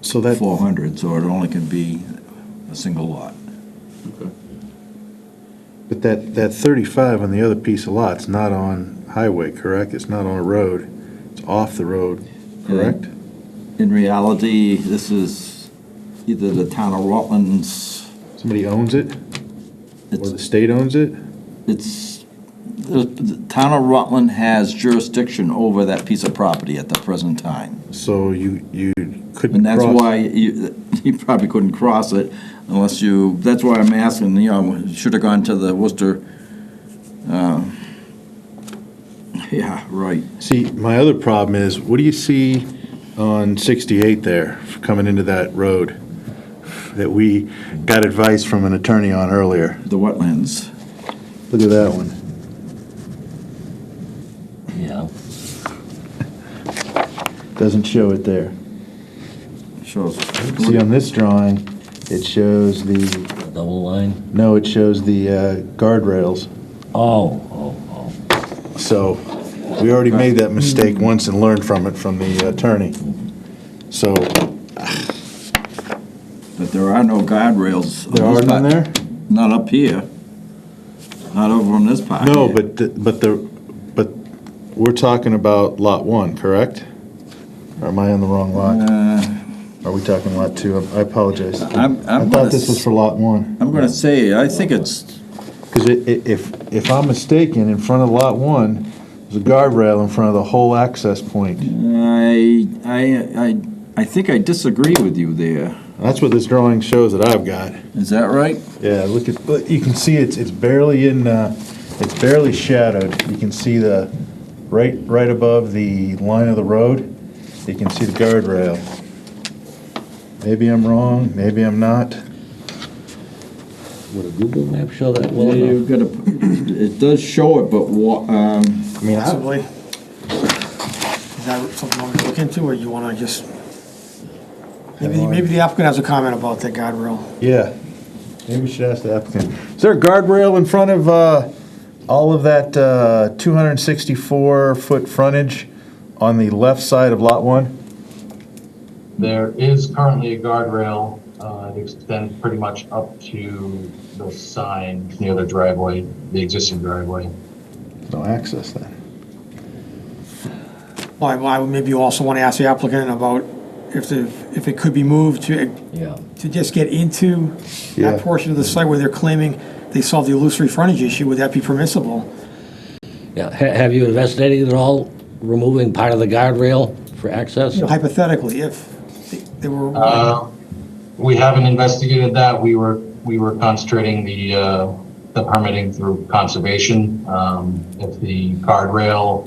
So that, 400, so it only can be a single lot. Okay. but that, that 35 on the other piece of lot's not on highway, correct? It's not on a road. It's off the road, correct? In reality, this is either the town of Rutland's, Somebody owns it, or the it's, state owns it? it's, the- the town of Rutland has jurisdiction over that piece of property at the present time. So you, you couldn't And that's cross. why you, you probably couldn't cross it unless you, that's why I'm asking, you know, should have gone to the Worcester. uh, Yeah, right. See, my other problem is, what do you see on 68 there, coming into that road? That we got advice from an attorney on earlier. The wetlands. Look at that one. Yeah, Doesn't show it there. Shows. See, on this drawing, it shows the double line. No, it shows the uh, guardrails. Oh, oh, oh. So we already made that mistake once and learned from it from the attorney. So But there are no guardrails. there are none there? Not up here. Not over on this part. No, but, the- but the, but we're talking about Lot 1, correct? Or am I on the wrong lot? Uh, Are we talking Lot 2? I apologize. I I'm, thought I'm gonna, this was s- for Lot 1. I'm gonna say, I think it's, Because if, if I'm mistaken, in front of Lot 1, there's a guardrail in front of the whole access point. I, I, I, I think I disagree with you there. That's what this drawing shows that I've got. Is that right? Yeah, look at, but you can see it's, it's barely in, uh, it's barely shadowed. You can see the, right, right above the line of the road, you can see the guardrail. Maybe I'm wrong, maybe I'm not. Would a Google map show that well Yeah, you've enough? got to, it does show it, but what, um, I mean, I, Possibly. Is that something you want to look into, or you want to just? Maybe, maybe the applicant has a comment about that guardrail. yeah, maybe we should ask the applicant. Is there a guardrail in front of, uh, all of that, uh, 264-foot frontage on the left side of Lot 1? There is currently a guardrail. uh, It extends pretty much up to the sign near the driveway, the existing driveway. No access then. Why, why, maybe you also want to ask the applicant about if the, if it could be moved to, Yeah. to just get into Yeah. that portion of the site where they're claiming they solved the illusory frontage issue, would that be permissible? Yeah, Ha- have you investigated at all removing part of the guardrail for access? Hypothetically, if they- they were, Uh, We haven't investigated that. We were, we were concentrating the, uh, the permitting through conservation. Um, If the guardrail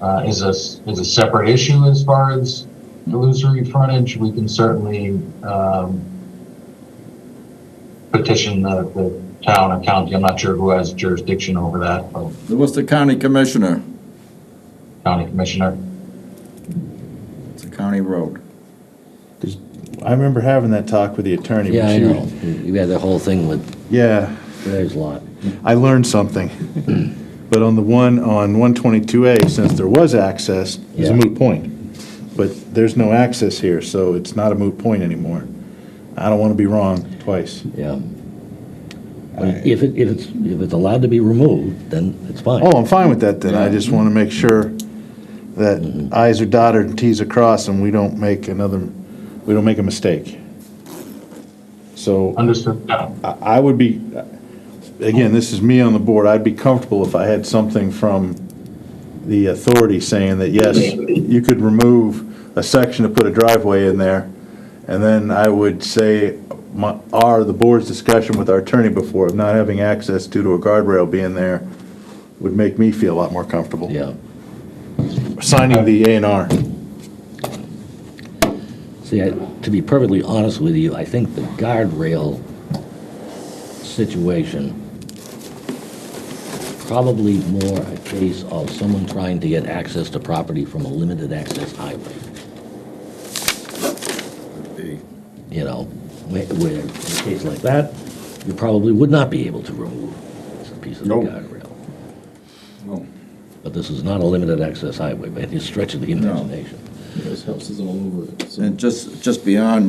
uh, is a, s- is a separate issue as far as illusory frontage, we can certainly um, petition the, the town or county. I'm not sure who has jurisdiction over that, but the Worcester County Commissioner, county commissioner. it's a county road. I remember having that talk with the attorney. but Yeah, I she- know. You had the whole thing with Yeah. Greg's lot. I learned something. But on the one, on 122A, since there was access, it's a Yeah. moot point. But there's no access here, so it's not a moot point anymore. I don't want to be wrong twice. Yeah. But If it, if it's, if it's allowed to be removed, then it's fine. Oh, I'm fine with that then. I just want to make sure that i's are dotted and t's are crossed and we don't make another, we don't make a mistake. So Understood. Yeah. I I would be, again, this is me on the board, I'd be comfortable if I had something from the authority saying that, yes, you could remove a section to put a driveway in there, and then I would say, my, our, the board's discussion with our attorney before, of not having access due to a guardrail being there, would make me feel a lot more comfortable. Yeah. Signing the A and R. See, I- to be perfectly honest with you, I think the guardrail situation probably more a case of someone trying to get access to property from a limited access highway. You know, where, where in a case like that, you probably would not be able to remove a piece of the No. guardrail. No. But this is not a limited access highway by any stretch of the imagination. His house is all over it, so. And just, just beyond